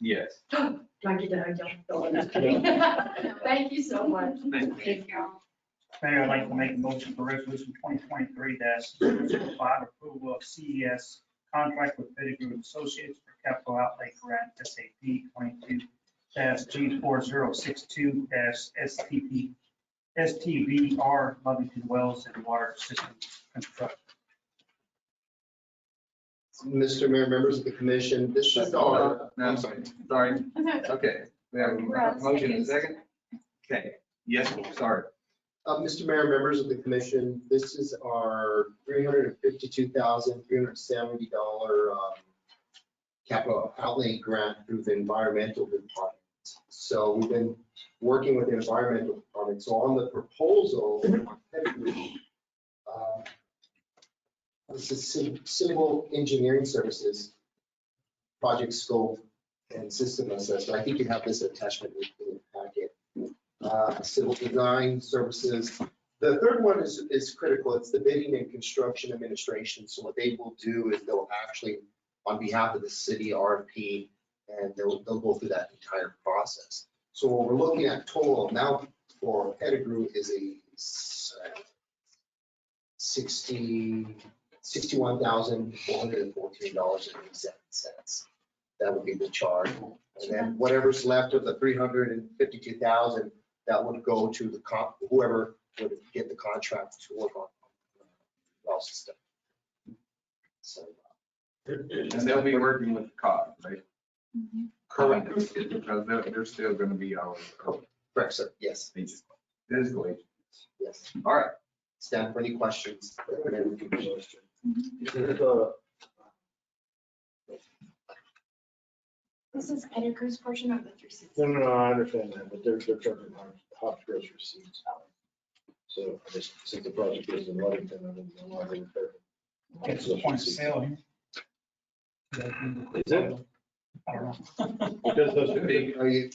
Yes. Monkey dog, don't go in there. Thank you so much. Thank Thank you. Mayor, I'd like to make a motion for resolution twenty twenty-three 5 approval of CES contract with Pettigrew Associates for capital outlay grant SAP twenty-two G four zero six two STP, STVR Lovington Wells and Water System Construction. Mr. Mayor, members of the commission, this is our, No, I'm sorry, sorry. Okay, we have a motion and a second. Okay, yes, sorry. uh, Mr. Mayor, members of the commission, this is our three hundred and fifty-two thousand, three hundred and seventy dollar um, capital outlay grant through the environmental department. So we've been working with the environmental department, so on the proposal, uh, this is ci- civil engineering services, project scope and system assessment. I think you have this attachment in the packet. uh, civil design services. The third one is, is critical. It's the bidding and construction administration. So what they will do is they'll actually, on behalf of the city RFP, and they'll, they'll go through that entire process. So what we're looking at total amount for Pettigrew is a s- sixty, sixty-one thousand, four hundred and fourteen dollars and eighty-seven cents. That would be the charge. And then whatever's left of the three hundred and fifty-two thousand, that would go to the comp, whoever would get the contract to work on. uh, well system. So, And they'll be working with COG, right? Mm-hmm. Correct. Because they're, they're still gonna be our, our Correct, sir, yes, agents. physical agents. yes. All right, Stand for any questions. This is Pettigrew's portion of the three sixty. No, no, no, I understand that, but they're, they're talking about Hopkins receipts. So I just, since the project is in Ludington, I didn't know why they were there. It's a point of sale here. Is it? I don't know. Because those should be- Are you,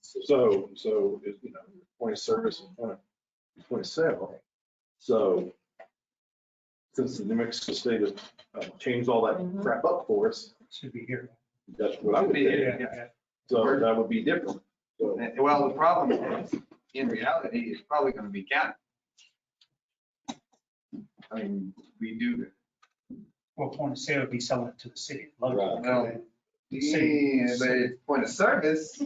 So, so, it- you know, point of service and point of, point of sale. So since the New Mexico State has uh, changed all that crap up for us, Should be here. that's well, what that I'm would be thinking. it, yeah. So that would be different. So And- Well, the problem is, in reality, it's probably gonna be counted. I mean, we do. Well, point of sale would be selling it to the city. Right. Well, City. Yeah, but it's point of service.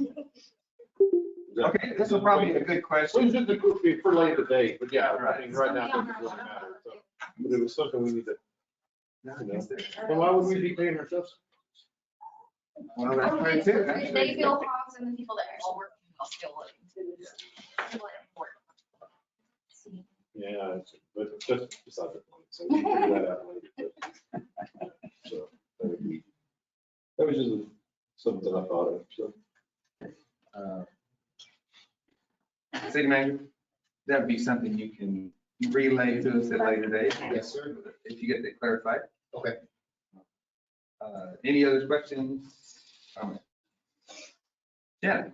Okay, this is probably a good question. Well, it could be for later date, but yeah, I mean, Right. right now, it doesn't really matter. so. But it was something we need to, And why would we be paying ourselves? Well, that's right too. That's They right. feel hogs and the people that actually work will still living. Yeah, it's- but just beside the point, so we can figure that out later. but- so, that would be- That was just something I thought of, so. Uh, City manager, that'd be something you can relay to us at a later date. yes, sir? If you get that clarified. Okay. Uh, Any other questions? Comments? Yeah.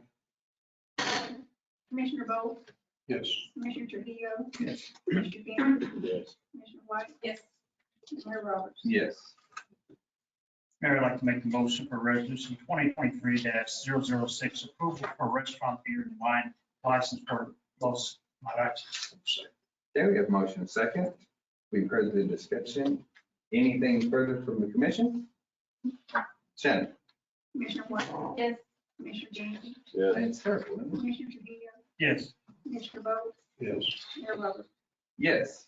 Commissioner Bolt, Yes. Commissioner Trujillo, Yes. Commissioner Gainer, Yes. Commissioner White, Yes. Mayor Roberts. Yes. Mayor, I'd like to make a motion for resolution twenty twenty-three 6 approval for restaurant beer and wine license for Los Mariachis. Okay, we have motion second. We've heard the discussion. Anything further from the commission? Shannon? Commissioner White, Yes. Commissioner Gainer, Yeah. It's terrible, isn't it? Commissioner Trujillo, Yes, Commissioner Bolt, Yes. Mayor Roberts. Yes.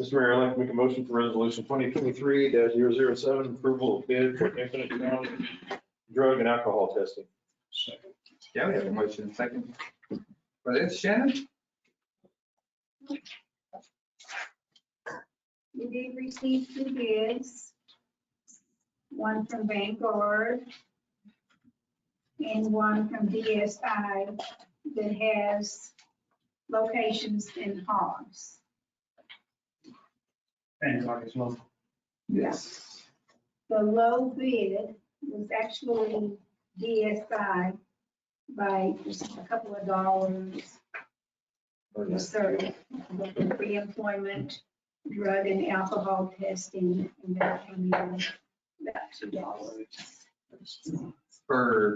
Mr. Mayor, I'd like to make a motion for resolution twenty twenty-three 7 approval of bid for infinite ground drug and alcohol testing. Yeah, we have a motion second. For this, Shannon? We did receive two bids, one from Vanguard and one from DSI that has locations in Hogs. and like it's local. Yes. The low bid was actually DSI by just a couple of dollars for the service, with the pre-employment drug and alcohol testing, and that came in about two dollars. For